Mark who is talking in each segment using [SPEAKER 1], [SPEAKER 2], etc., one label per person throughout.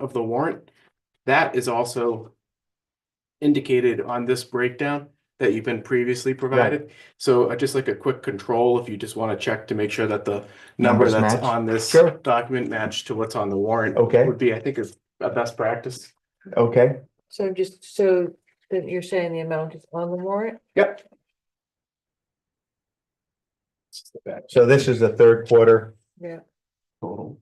[SPEAKER 1] of the warrant, that is also indicated on this breakdown that you've been previously provided. So uh, just like a quick control, if you just want to check to make sure that the number
[SPEAKER 2] Numbers
[SPEAKER 1] that's
[SPEAKER 2] match.
[SPEAKER 1] on this
[SPEAKER 2] Sure.
[SPEAKER 1] document matched to what's on the warrant.
[SPEAKER 2] Okay.
[SPEAKER 1] Would be, I think, is a best practice.
[SPEAKER 2] Okay,
[SPEAKER 3] So I'm just, so then you're saying the amount is on the warrant?
[SPEAKER 1] Yep.
[SPEAKER 2] so this is the third quarter,
[SPEAKER 3] Yeah.
[SPEAKER 1] Total.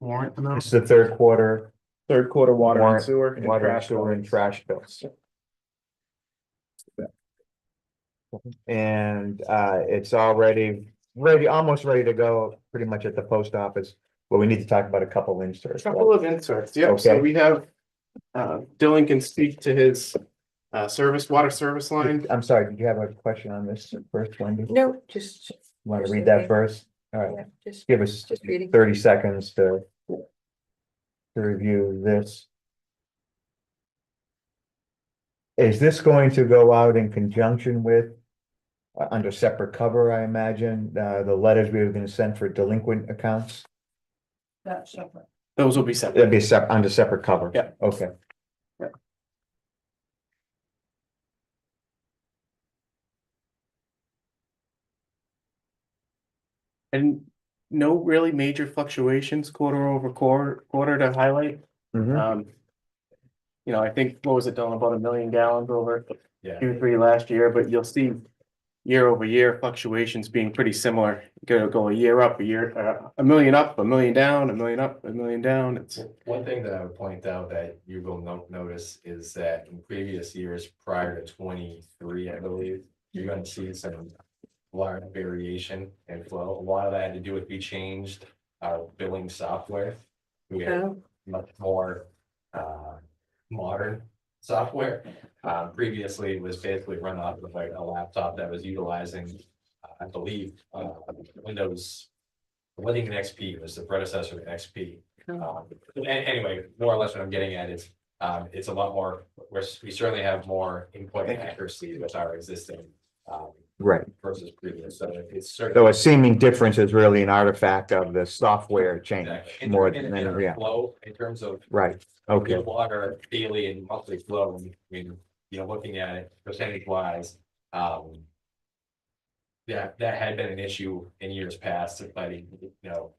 [SPEAKER 1] Warrant
[SPEAKER 2] this is
[SPEAKER 1] amount.
[SPEAKER 2] the third quarter
[SPEAKER 4] Third quarter water and
[SPEAKER 2] Warrant-
[SPEAKER 4] sewer. and
[SPEAKER 2] water,
[SPEAKER 4] trash
[SPEAKER 2] sewer and
[SPEAKER 4] bills.
[SPEAKER 2] trash bills. And uh, it's already ready, almost ready to go, pretty much at the post office, but we need to talk about a couple
[SPEAKER 1] A
[SPEAKER 2] inserts.
[SPEAKER 1] Couple of inserts, yep, so
[SPEAKER 2] Okay.
[SPEAKER 1] we have, uh, Dylan can speak to his, uh, service, water service line.
[SPEAKER 2] I'm sorry, did you have a question on this first one? Do you
[SPEAKER 3] No, just,
[SPEAKER 2] Want to read that first? All right,
[SPEAKER 3] yeah, just,
[SPEAKER 2] give us
[SPEAKER 3] Just reading.
[SPEAKER 2] thirty seconds to to review this. Is this going to go out in conjunction with uh, under separate cover, I imagine, uh, the letters we were gonna send for delinquent accounts?
[SPEAKER 1] Those will be separate.
[SPEAKER 2] That'd be sep- under separate cover?
[SPEAKER 1] Yeah.
[SPEAKER 2] Okay.
[SPEAKER 1] Yeah. And no really major fluctuations quarter over quarter, quarter to highlight,
[SPEAKER 2] Mhm.
[SPEAKER 1] um. You know, I think, what was it, Dylan, about a million gallons over
[SPEAKER 4] Yeah.
[SPEAKER 1] Q three last year, but you'll see. Year over year fluctuations being pretty similar, go, go a year up, a year, uh, a million up, a million down, a million up, a million down, it's.
[SPEAKER 5] W- One thing that I would point out that you will no- notice is that in previous years prior to twenty-three, I believe, you're gonna see some large variation in flow. A lot of that had to do with we changed our billing software. We had
[SPEAKER 3] no,
[SPEAKER 5] much more uh modern software. Um previously it was basically run off of like a laptop that was utilizing, uh, I believe, uh Windows. Winning XP was the predecessor to XP. Um, a- anyway, more or less what I'm getting at is, um, it's a lot more, we're, we certainly have more input and accuracy with our existing. Um,
[SPEAKER 2] Right,
[SPEAKER 5] versus previous, so it's
[SPEAKER 2] so
[SPEAKER 5] certainly.
[SPEAKER 2] a seeming difference is really an artifact of the software change
[SPEAKER 5] Exactly.
[SPEAKER 2] more
[SPEAKER 5] In-
[SPEAKER 2] than,
[SPEAKER 5] in our
[SPEAKER 2] yeah,
[SPEAKER 5] Flow in terms of
[SPEAKER 2] right,
[SPEAKER 5] your
[SPEAKER 2] okay,
[SPEAKER 5] water daily and monthly flow, I mean, you know, looking at it percentage wise, um. That, that had been an issue in years past, but you know,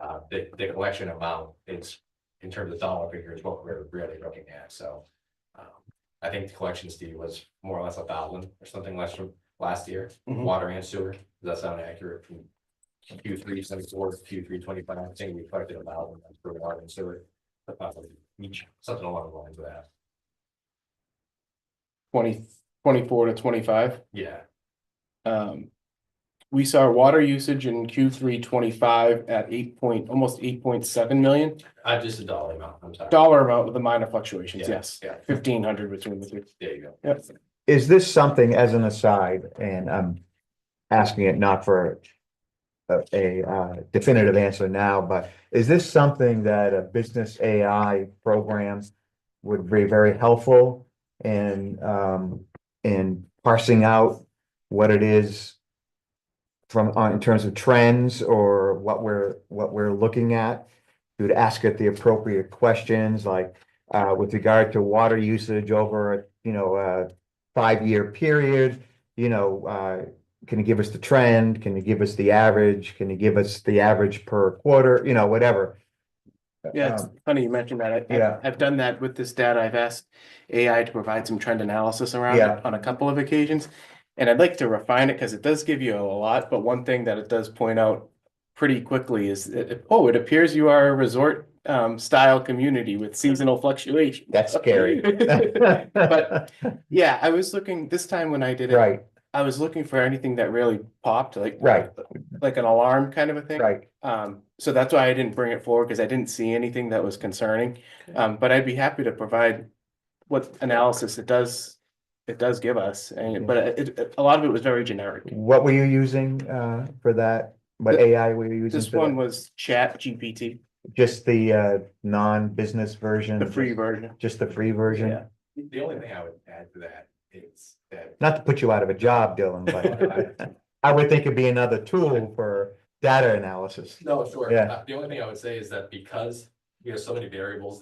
[SPEAKER 5] uh, the, the collection amount is in terms of dollar figure is what we're really looking at, so. um, I think the collection Steve was more or less a thousand or something less from last year,
[SPEAKER 1] Mhm.
[SPEAKER 5] water and sewer, does that sound accurate? from Q three seventy-four, Q three twenty-five, I think we collected a thousand for water and sewer. Probably each, something along the lines of that,
[SPEAKER 1] twenty, twenty-four to twenty-five.
[SPEAKER 5] yeah.
[SPEAKER 1] Um, we saw water usage in Q three twenty-five at eight point, almost eight point seven million.
[SPEAKER 5] I just a dollar amount, I'm sorry.
[SPEAKER 1] Dollar amount with the minor fluctuations,
[SPEAKER 5] Yeah,
[SPEAKER 1] yes,
[SPEAKER 5] Yeah,
[SPEAKER 1] fifteen hundred between the two.
[SPEAKER 5] there you go.
[SPEAKER 1] Yep.
[SPEAKER 2] Is this something as an aside, and I'm asking it not for a, a uh, definitive answer now, but is this something that a business AI program would be very helpful in, um, in parsing out what it is from, on, in terms of trends or what we're, what we're looking at? You would ask it the appropriate questions, like, uh, with regard to water usage over, you know, uh, five-year period, you know, uh, can you give us the trend? Can you give us the average? Can you give us the average per quarter? You know, whatever.
[SPEAKER 1] Yeah, it's
[SPEAKER 2] Um,
[SPEAKER 1] funny you mentioned that. I-
[SPEAKER 2] yeah.
[SPEAKER 1] I, I've done that with this data. I've asked AI to provide some trend analysis around
[SPEAKER 2] Yeah.
[SPEAKER 1] it on a couple of occasions. And I'd like to refine it because it does give you a lot, but one thing that it does point out pretty quickly is, that it- oh, it appears you are a resort um, style community with seasonal fluctuation.
[SPEAKER 2] That's scary. Um,
[SPEAKER 1] But- Yeah, I was looking, this time when I did it,
[SPEAKER 2] Right,
[SPEAKER 1] I was looking for anything that really popped, like.
[SPEAKER 2] Right.
[SPEAKER 1] Like an alarm kind of a thing.
[SPEAKER 2] right.
[SPEAKER 1] Um, so that's why I didn't bring it forward, because I didn't see anything that was concerning. Um, but I'd be happy to provide what analysis it does, it does give us, and, but it, it- a lot of it was very generic.
[SPEAKER 2] What were you using uh, for that? What
[SPEAKER 1] Th-
[SPEAKER 2] AI were you using?
[SPEAKER 1] This
[SPEAKER 2] for
[SPEAKER 1] one
[SPEAKER 2] that?
[SPEAKER 1] was Chat GPT,
[SPEAKER 2] Just the uh, non-business version?
[SPEAKER 1] the free version.
[SPEAKER 2] Just the free
[SPEAKER 1] Yeah.
[SPEAKER 2] version?
[SPEAKER 5] The only thing I would add to that is that.
[SPEAKER 2] Not to put you out of a job, Dylan, but I would think it'd be another tool for data analysis.
[SPEAKER 5] No, sure.
[SPEAKER 2] Yeah.
[SPEAKER 5] Uh, The only thing I would say is that because we have so many variables